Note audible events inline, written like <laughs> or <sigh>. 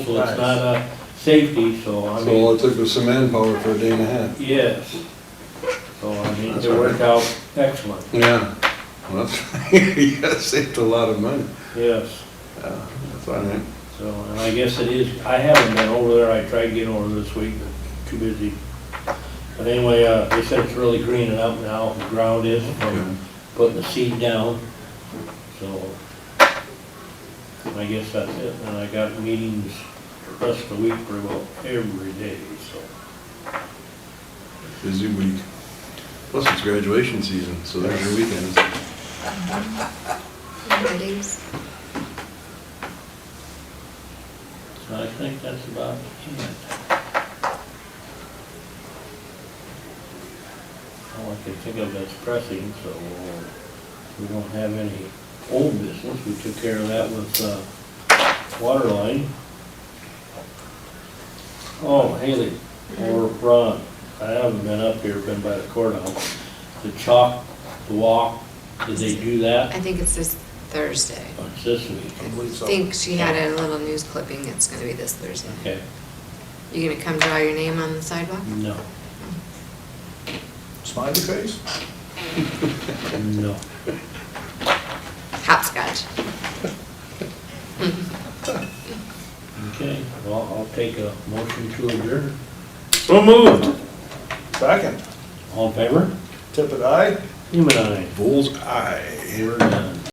so it's not uh, a safety, so I So all mean, it took was some manpower for a day and a half. yes. So I mean, it worked out excellent, Yeah. Well, <laughs> yeah, saved a lot of money. yes. Yeah, that's all right. So, and I guess it is, I haven't been over there, I tried getting over this week, but too busy. But anyway, uh, they said it's really greening up now, the ground is from putting the seed down, so. I guess that's it, and I got meetings the rest of the week pretty well every day, so. Busy week. Plus it's graduation season, so there's your weekends. Ladies. So I think that's about it. All I can think of that's pressing, so uh, we don't have any old business. We took care of that with, uh, water line. Oh, Haley, or Ron, I haven't been up here, been by the courthouse. The chalk, the walk, did they do that? I think it's this Thursday. It's this week, I think she had a little news clipping, it's gonna be this Thursday. okay, You gonna come draw your name on the sidewalk? no, Smiley face? no. Hopscotch. Okay, well, I'll take a motion to adjourn. So moved. Second. All in favor? Tippit, aye? Human eye. Bull's eye. We're done.